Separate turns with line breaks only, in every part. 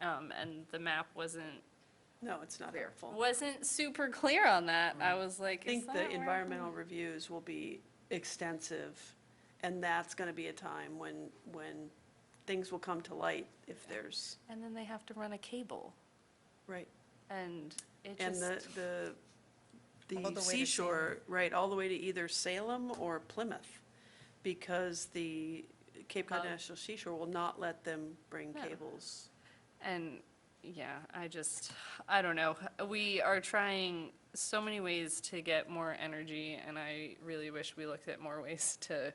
um, and the map wasn't,
No, it's not helpful.
wasn't super clear on that. I was like,
Mm. I
is
think
that
the
where-
environmental reviews will be extensive, and that's gonna be a time when, when things will come to light if there's,
And then they have to run a cable,
right.
and it
And
just,
the, the,
All the
the
way to
seashore, right, all the way to either Salem or Plymouth, because the Cape Cod
Well-
National Seashore will not let them bring
Yeah.
cables.
and, yeah, I just, I don't know. We are trying so many ways to get more energy, and I really wish we looked at more ways to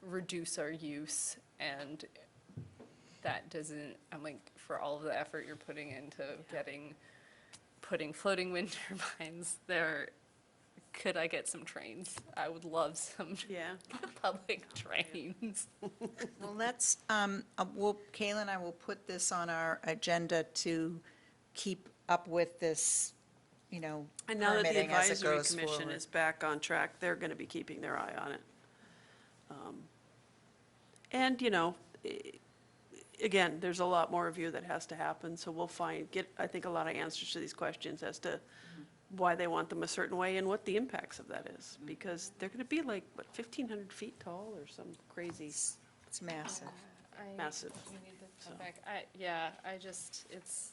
reduce our use, and that doesn't, I'm like, for all of the effort you're putting into getting, putting floating wind turbines there, could I get some trains? I would love some
Yeah,
public trains.
Well, let's, um, uh, we'll, Kayla and I will put this on our agenda to keep up with this, you know,
and now that the
permitting as it
advisory
goes
commission
forward.
is back on track, they're gonna be keeping their eye on it. Um, And, you know, i- again, there's a lot more review that has to happen, so we'll find, get, I think, a lot of answers to these questions as to why they want them a certain way and what the impacts of that is,
Mm-hmm.
because they're gonna be like, what, fifteen hundred feet tall or some crazy,
It's it's massive.
massive,
We need to
So.
come back. I, yeah, I just, it's.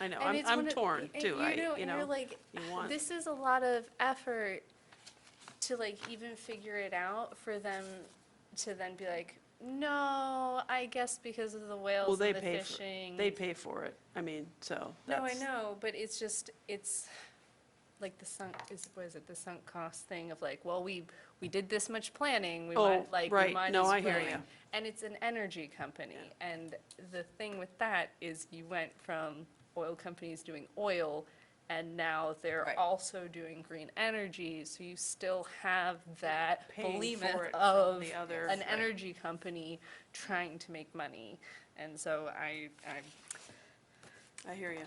I know,
and
I'm,
it's one
I'm
of-
torn
and
too, I, you
You're
know,
like, "Ah,
you want-
this is a lot of effort to like even figure it out for them to then be like, no, I guess because of the
well,
whales
they
and the
pay for,
fishing.
they pay for it, I mean, so,
No, I
that's-
know, but it's just, it's like the sunk, is, what is it, the sunk cost thing of like, well, we, we did this much planning, we
Oh,
might, like, we
right.
might as
No,
well.
I hear ya.
And it's an energy company, and the thing with that is you went from oil companies doing oil, and now they're
Right.
also doing green energy, so you still have that
Paying for it
behemoth
from
of
the other-
an
Right.
energy company trying to make money, and so I, I'm
I hear you.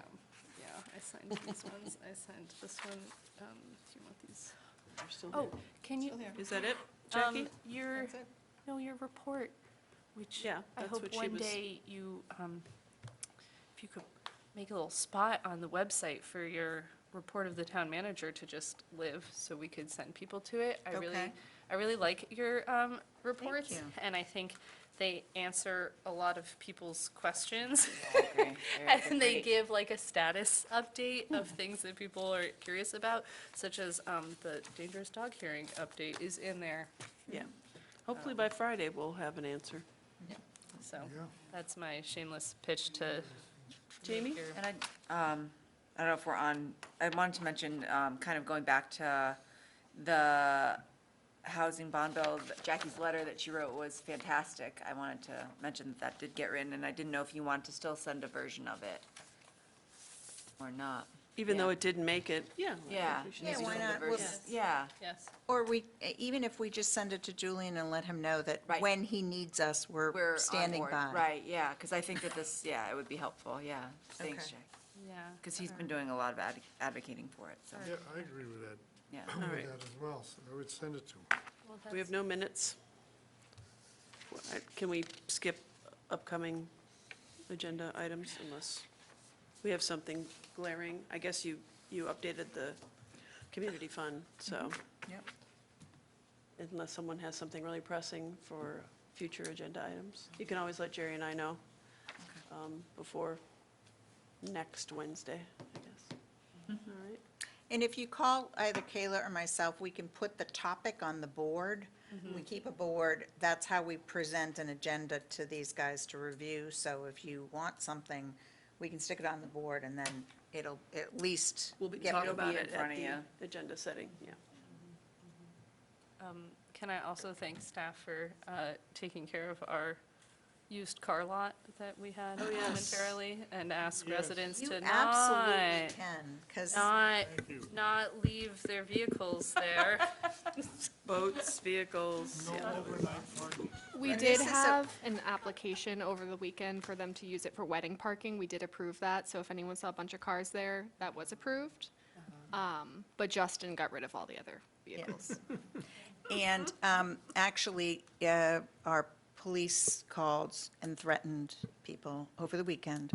yeah, I signed these ones, I signed this one, um, do you want these?
They're still
Oh,
there.
can you,
Is that it,
um,
Jackie?
your, no, your report, which
Yeah,
I
that's
hope
what she
one
was-
day you, um, if you could make a little spot on the website for your report of the town manager to just live, so we could send people to it. I really,
Okay.
I really like your, um, reports.
you.
And I think they answer a lot of people's questions.
Okay, yeah,
And they
great.
give like a status update of
Hmm.
things that people are curious about, such as um, the dangerous dog hearing update is in there.
Yeah. Hopefully by Friday, we'll have an answer.
So that's my shameless pitch to.
Jamie?
your-
And I, um, I don't know if we're on, I wanted to mention, um, kind of going back to the housing bond bill, that Jackie's letter that she wrote was fantastic. I wanted to mention that that did get written, and I didn't know if you wanted to still send a version of it or not.
Even though
Yeah.
it didn't make it, yeah. I think
Yeah.
we should
Yeah,
do
why
that.
not? We'll-
Version- Yeah,
Yes.
Or we, E, even if we just send it to Julian and let him know that
Right.
when he needs us,
we're
we're
on
standing
board.
by.
Right, yeah, because I think that this, yeah, it would be helpful, yeah. Thanks,
Okay.
Jackie.
Yeah.
Because he's been doing a lot of ad- advocating for it, so,
Yeah, I agree with that,
yeah.
All
with
right.
that as well, so I would send it to him.
Well,
We have
that's-
no minutes. Well, I- Can we skip upcoming agenda items unless we have something glaring? I guess you, you updated the community fund, so
Yep.
unless someone has something really pressing for future agenda items, you can always let Jerry and I know um, before next Wednesday, I guess. All right.
And if you call either Kayla or myself, we can put the topic on the board.
Mm-hmm.
We keep a board, that's how we present an agenda to these guys to review. So if you want something, we can stick it on the board and then it'll at least.
We'll be
get
talking
people-
about
in
it
front of
at
you.
the agenda setting, yeah.
Can I also thank staff for uh, taking care of our used car lot that we had
yes.
momentarily and ask
Yes.
residents
You
to
absolutely
not,
can, because
not,
Thank you.
not leave their vehicles there.
Boats, vehicles, yeah.
We
And
did
this is a-
have an application over the weekend for them to use it for wedding parking. We did approve that, so if anyone saw a bunch of cars there, that was approved.
Uh-huh.
Um, But Justin got rid of all the other vehicles.
And um, actually, uh, our police called and threatened people over the weekend